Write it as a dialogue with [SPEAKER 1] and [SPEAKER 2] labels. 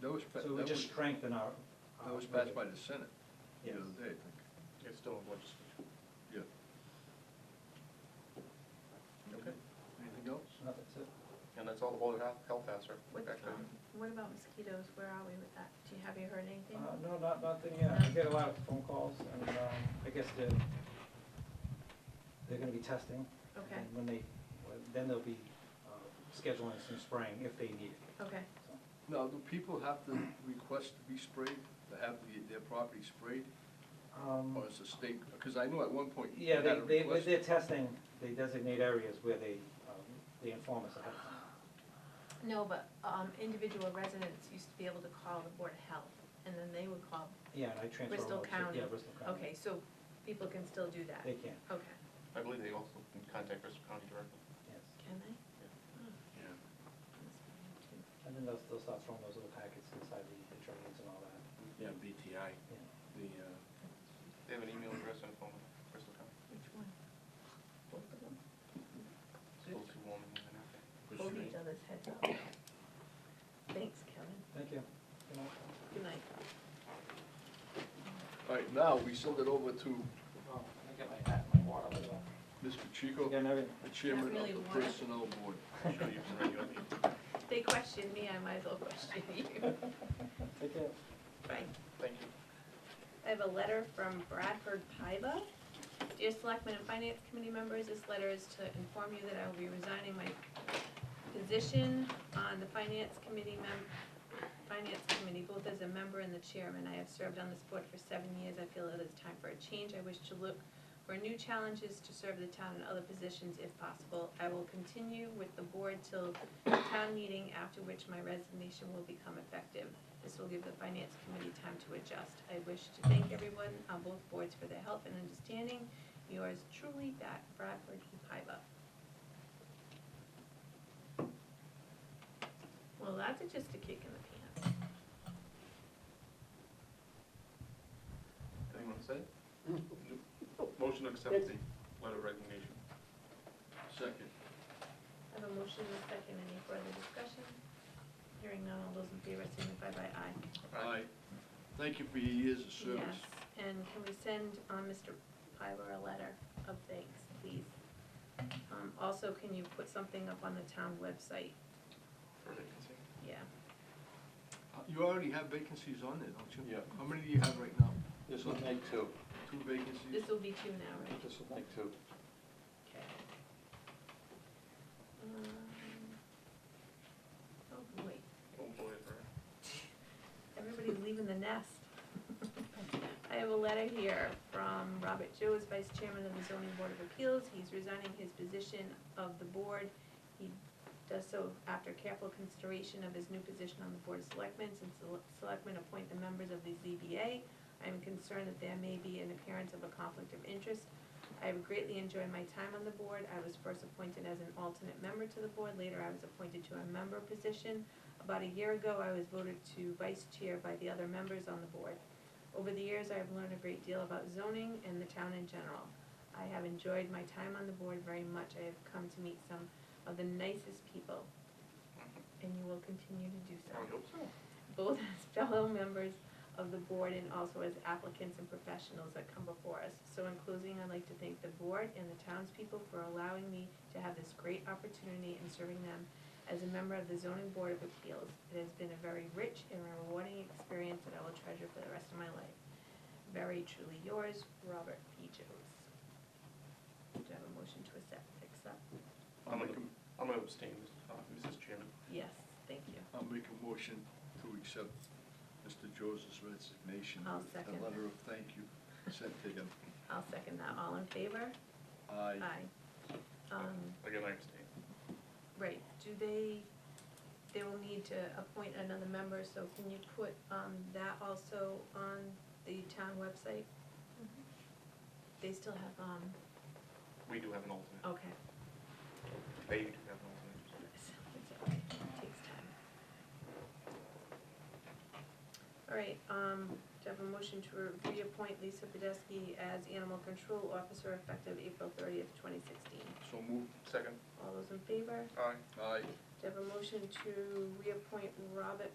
[SPEAKER 1] That was, pa-
[SPEAKER 2] So
[SPEAKER 1] that
[SPEAKER 2] it would just
[SPEAKER 1] was,
[SPEAKER 2] strengthen our.
[SPEAKER 1] that was passed by the Senate the
[SPEAKER 2] Yes.
[SPEAKER 1] other day, I think,
[SPEAKER 3] It's still in legislature.
[SPEAKER 1] yeah. Okay, anything else?
[SPEAKER 2] Nothing, that's it.
[SPEAKER 3] And that's all the Board of Health- Health has, sir.
[SPEAKER 4] What,
[SPEAKER 3] Back to you.
[SPEAKER 4] um, what about mosquitoes? Where are we with that? Do you, have you heard anything?
[SPEAKER 2] Uh, no, not, nothing yet. I get a lot of phone calls and, um, I guess they're, they're gonna be testing.
[SPEAKER 4] Okay.
[SPEAKER 2] And when they, then they'll be, uh, scheduling some spraying if they need it.
[SPEAKER 4] Okay,
[SPEAKER 2] So,
[SPEAKER 1] Now, do people have to request to be sprayed, to have the- their property sprayed,
[SPEAKER 2] Um,
[SPEAKER 1] or Oh, is the state, because I know at one point you
[SPEAKER 2] yeah,
[SPEAKER 1] had
[SPEAKER 2] they,
[SPEAKER 1] a
[SPEAKER 2] they,
[SPEAKER 1] request.
[SPEAKER 2] with their testing, they designate areas where they, um, they inform us ahead of time.
[SPEAKER 4] no, but, um, individual residents used to be able to call the Board of Health, and then they would call,
[SPEAKER 2] Yeah, and I transfer. them
[SPEAKER 4] Bristol
[SPEAKER 2] over to-
[SPEAKER 4] County.
[SPEAKER 2] Yeah, Bristol County.
[SPEAKER 4] okay, so people can still do that? Oh.
[SPEAKER 2] They can,
[SPEAKER 4] Okay,
[SPEAKER 3] I believe they also can contact Bristol County directly.
[SPEAKER 2] yes.
[SPEAKER 4] can they? Oh,
[SPEAKER 1] Yeah.
[SPEAKER 2] And then they'll, they'll start throwing those little packets inside the, the trains and all that,
[SPEAKER 5] Yeah, BTI,
[SPEAKER 2] you know.
[SPEAKER 5] the, uh,
[SPEAKER 3] They have an email address and a phone number, Bristol County.
[SPEAKER 4] Which one? Both of them?
[SPEAKER 3] It's a little too warm in here, I think.
[SPEAKER 5] what's the name?
[SPEAKER 4] each other's heads up. Thanks, Kevin.
[SPEAKER 2] Thank you. Good night.
[SPEAKER 4] Good night.
[SPEAKER 1] All right, now, we send it over to
[SPEAKER 2] Oh, I got my hat, and my water.
[SPEAKER 1] Mr. Chico,
[SPEAKER 2] Got
[SPEAKER 1] the
[SPEAKER 2] everything.
[SPEAKER 1] chairman of
[SPEAKER 4] really
[SPEAKER 1] the
[SPEAKER 4] warm.
[SPEAKER 1] personnel board.
[SPEAKER 3] I'm sure you can run your meeting.
[SPEAKER 4] They questioned me, I might as well question you.
[SPEAKER 2] Take care.
[SPEAKER 4] Bye.
[SPEAKER 3] Thank you.
[SPEAKER 4] I have a letter from Bradford Paiva. Dear Selectmen and Finance Committee members, this letter is to inform you that I will be resigning my position on the Finance Committee mem- Finance Committee, both as a member and the chairman. I have served on this board for seven years. I feel it is time for a change. I wish to look for new challenges to serve the town in other positions if possible. I will continue with the board till the town meeting, after which my resignation will become effective. This will give the finance committee time to adjust. I wish to thank everyone on both boards for their help and understanding. Yours truly, Bat Bradford E. Piva. Well, that's a- just a kick in the pants.
[SPEAKER 3] Anyone say? Motion to accept the letter of resignation.
[SPEAKER 1] Second.
[SPEAKER 4] I have a motion and a second. Any further discussion? Hearing none, all those in favor signify by aye.
[SPEAKER 1] Aye. Thank you for your years of service.
[SPEAKER 4] Yes, and can we send um, Mr. Pilar a letter of thanks, please? Um, Also, can you put something up on the town website?
[SPEAKER 3] For vacancy.
[SPEAKER 4] Yeah,
[SPEAKER 1] Uh, You already have vacancies on there, don't you?
[SPEAKER 5] Yeah.
[SPEAKER 1] How many do you have right now?
[SPEAKER 5] this will take two,
[SPEAKER 1] Two vacancies?
[SPEAKER 4] this will be two now, right?
[SPEAKER 5] this will take two.
[SPEAKER 4] Okay. Um, Oh, boy,
[SPEAKER 3] Oh, boy, for-
[SPEAKER 4] everybody's leaving the nest. I have a letter here from Robert Joe, as Vice Chairman of the Zoning Board of Appeals. He's resigning his position of the board. He does so after careful consideration of his new position on the Board of Selectmen, since the selectmen appoint the members of the ZBA. I am concerned that there may be an appearance of a conflict of interest. I have greatly enjoyed my time on the board. I was first appointed as an alternate member to the board. Later, I was appointed to a member position. About a year ago, I was voted to vice chair by the other members on the board. Over the years, I have learned a great deal about zoning and the town in general. I have enjoyed my time on the board very much. I have come to meet some of the nicest people,
[SPEAKER 3] Mm-hmm.
[SPEAKER 4] and you will continue to do so
[SPEAKER 3] I hope so.
[SPEAKER 4] both as fellow members of the board and also as applicants and professionals that come before us. So in closing, I'd like to thank the board and the townspeople for allowing me to have this great opportunity in serving them as a member of the zoning board of appeals. It has been a very rich and rewarding experience that I will treasure for the rest of my life. Very truly yours, Robert P. Jones. Do you have a motion to accept, accept?
[SPEAKER 3] I'm gonna, I'm gonna abstain, Mr. uh, Mrs. Chairman.
[SPEAKER 4] Yes, thank you.
[SPEAKER 1] I'll make a motion to accept Mr. Joseph's resignation.
[SPEAKER 4] I'll
[SPEAKER 1] with
[SPEAKER 4] second.
[SPEAKER 1] A letter of thank you sent to him.
[SPEAKER 4] I'll second that. All in favor?
[SPEAKER 1] Aye.
[SPEAKER 4] Um,
[SPEAKER 3] Again, I abstain.
[SPEAKER 4] Right, do they, they will need to appoint another member, so can you put, um, that also on the town website? They still have, um,
[SPEAKER 3] We do have an alternate.
[SPEAKER 4] okay,
[SPEAKER 3] They do have an alternate.
[SPEAKER 4] it's, it's all right, it takes time. All right, um, do I have a motion to reappoint Lisa Podesky as animal control officer effective April thirtieth, twenty sixteen?
[SPEAKER 1] So moved.
[SPEAKER 3] Second,
[SPEAKER 4] All those in favor?
[SPEAKER 3] aye.
[SPEAKER 1] Aye.
[SPEAKER 4] Do I have a motion to reappoint Robert